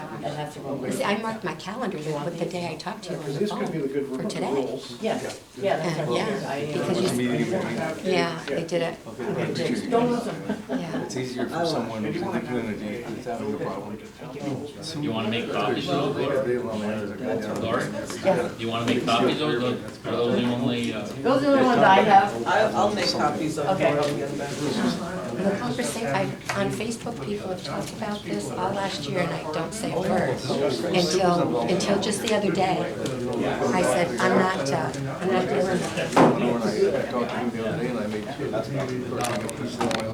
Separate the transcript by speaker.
Speaker 1: that's the wrong
Speaker 2: You
Speaker 1: word.
Speaker 2: see, I marked my calendar there with the day I talked to you on
Speaker 3: Because
Speaker 2: the
Speaker 3: this could be the
Speaker 2: phone
Speaker 3: good
Speaker 2: for
Speaker 3: the
Speaker 2: today.
Speaker 3: rules.
Speaker 1: Yeah, yeah, that's what
Speaker 2: Yeah,
Speaker 1: it is. I, uh,
Speaker 2: because you- Yeah,
Speaker 3: Yeah.
Speaker 2: they did it,
Speaker 1: Don't listen.
Speaker 2: yeah.
Speaker 4: It's easier for someone who's living in a day who's having a problem.
Speaker 5: You want to make copies of those?
Speaker 4: They allow me to go down.
Speaker 5: Laura,
Speaker 1: Yeah.
Speaker 5: you want to make copies of those? Are those the only, uh,
Speaker 1: Those are the only ones I have.
Speaker 6: I'll, I'll make copies of it.
Speaker 1: Okay.
Speaker 6: I'll get them.
Speaker 2: The conversation, I, on Facebook, people have talked about this all last year, and I don't say a word. Until, until just the other day, I said, I'm not, uh, I'm not dealing with it.
Speaker 4: I talked to him the other day and I made sure that's not-